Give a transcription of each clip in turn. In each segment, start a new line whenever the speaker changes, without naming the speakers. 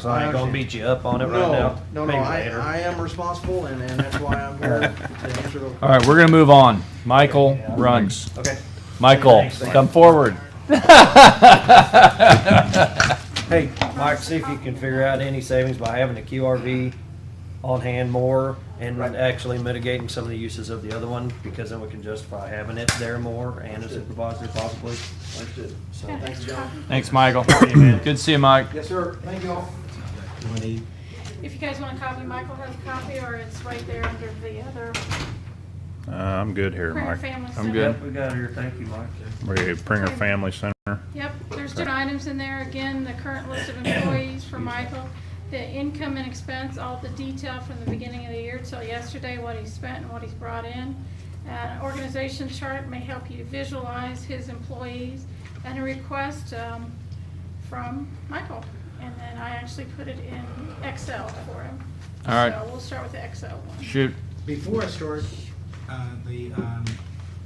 So I ain't gonna beat you up on it right now.
No, no,
Maybe
I,
later.
I am responsible and, and that's why I'm here to answer the.
All right, we're gonna move on. Michael runs.
Okay.
Michael,
Thanks.
come forward.
Hey, Mike, see if you can figure out any savings by having the QRV on hand more and actually mitigating some of the uses of the other one, because then we can justify having it there more and a supervisor possibly.
Understood.
So,
Thanks, John.
Thanks, Michael. Good to see you, Mike.
Yes, sir. Thank you all.
If you guys want a copy, Michael has a copy, or it's right there under the other
Uh, I'm good here,
Prayer
Mike.
Family Center.
I'm good.
yep, we got it here. Thank you, Mike.
We're at Pringer Family Center.
Yep, there's good items in there. Again, the current list of employees for Michael, the income and expense, all the detail from the beginning of the year till yesterday, what he spent and what he's brought in. Uh, organization chart may help you visualize his employees and a request, um, from Michael. And then I actually put it in Excel for him.
All right.
So we'll start with the Excel one.
Shoot.
Before I start, uh, the um,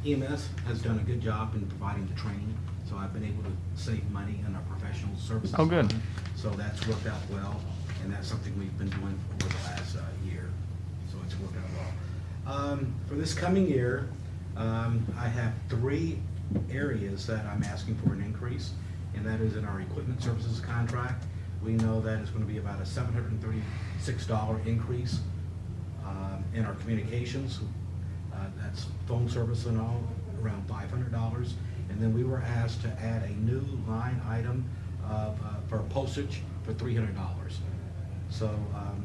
EMS has done a good job in providing the training, so I've been able to save money in our professional services.
Oh, good.
fund. So that's worked out well, and that's something we've been doing for the last uh, year, so it's worked out well. Um, For this coming year, um, I have three areas that I'm asking for an increase, and that is in our equipment services contract. We know that it's gonna be about a seven hundred and thirty-six dollar increase um, in our communications. uh, That's phone service and all, around five hundred dollars. And then we were asked to add a new line item of, uh, for postage for three hundred dollars. So um,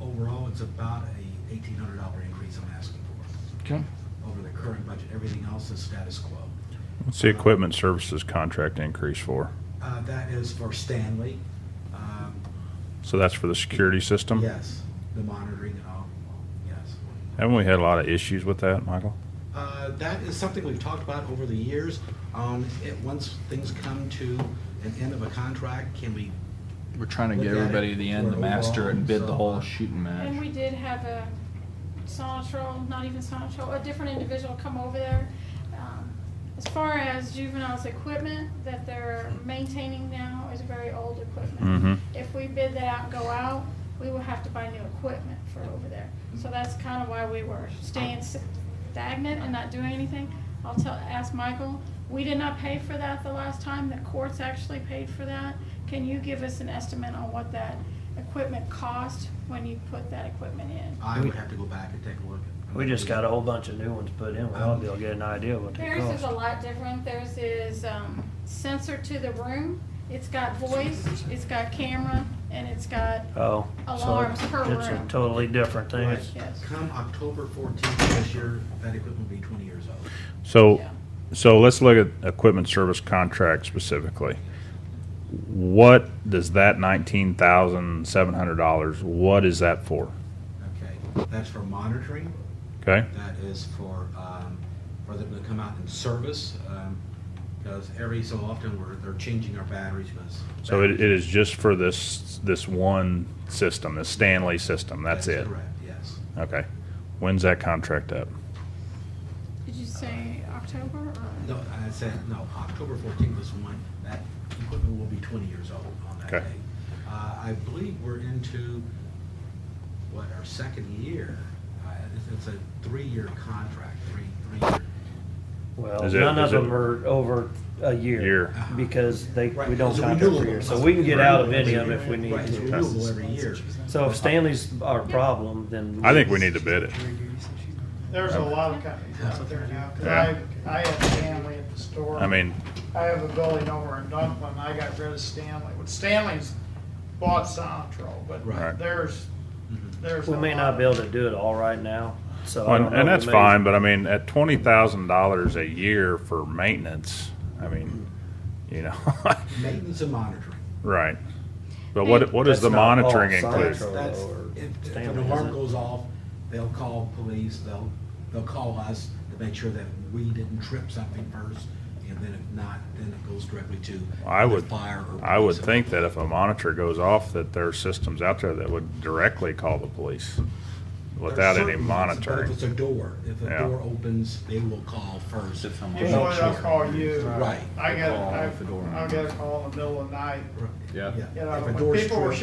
overall, it's about a eighteen hundred dollar increase I'm asking for
Okay.
over the current budget. Everything else is status quo.
What's the equipment services contract increase for?
Uh, That is for Stanley. um,
So that's for the security system?
Yes, the monitoring and all, yes.
Haven't we had a lot of issues with that, Michael?
Uh, That is something we've talked about over the years. Um, it- Once things come to an end of a contract, can we,
We're trying to
Look
get
at it
everybody to the end,
for
to master it and bid the
overall,
whole
so-
shooting
And
match.
we did have a Sonatrol, not even Sonatrol, a different individual come over there. Um, As far as juveniles' equipment that they're maintaining now is very old
Mhm.
equipment. If we bid that out and go out, we will have to buy new equipment for over there. So that's kind of why we were staying stagnant and not doing anything. I'll tell, ask Michael, we did not pay for that the last time, the courts actually paid for that. Can you give us an estimate on what that equipment cost when you put that equipment in?
I would have to go back and take a look.
We just got a whole bunch of new ones put in. We ought to be able to get an idea what they
Theirs is a
cost.
lot different. Theirs is um, sensor to the room. It's got voice, it's got camera, and it's got,
Oh, so
Alarms per
it's a
room.
totally different thing. It's-
yes.
Come October 14th of this year, that equipment will be 20 years old.
So,
Yeah.
so let's look at equipment service contract specifically. What does that nineteen thousand seven hundred dollars, what is that for?
Okay, that's for monitoring,
Okay,
that is for, um, for them to come out and service, because every so often, we're, they're changing our batteries, because.
so it, it is just for this, this one system, the Stanley system, that's it?
Correct, yes.
Okay, when's that contract up?
Did you say October or?
No, I said, no, October fourteenth is one, that equipment will be twenty years old on that
Okay.
day. Uh, I believe we're into, what, our second year, uh, it's- it's a three-year contract, three, three-year.
Well,
Is it-
none of
is it-
them are over a year.
Year.
Because they,
Right,
we don't
it's a
count them per
renewable.
year. So we can get out of any of them if we need
Right, it's
to.
renewable every year.
So if Stanley's our problem, then.
I think we need to bid it.
There's a lot of companies out there now, 'cause I, I have Stanley at the store.
I mean,
I have a building over in Dunklin, I got rid of Stanley, but Stanley's bought Sonatrol,
Right.
but there's, there's.
We
a
may
lot
not
of-
be able to do it all right now, so. I don't
and,
know,
and
we
that's
may-
fine, but I mean, at twenty thousand dollars a year for maintenance, I mean, you know,
Maintenance and monitoring.
right. But what, what does
That's
the
not all
monitoring
science.
include?
That's,
Control or
that's, if, if an
Stanley,
alarm
isn't it?
goes off, they'll call police, they'll, they'll call us to make sure that we didn't trip something first, and then if not, then it goes directly to
I
either
would,
fire or.
I would
police.
think that if a monitor goes off, that there are systems out there that would directly call the police without
There's
any
certain ones, but If it's
monitoring.
a door, if a
Yeah.
door opens, they will call first.
Usually they'll call you.
Right.
I got,
Call
I,
if the door-
I got a call in the middle of the night,
Yeah.
Yeah.
You know,
If a
when
door's
people were
short-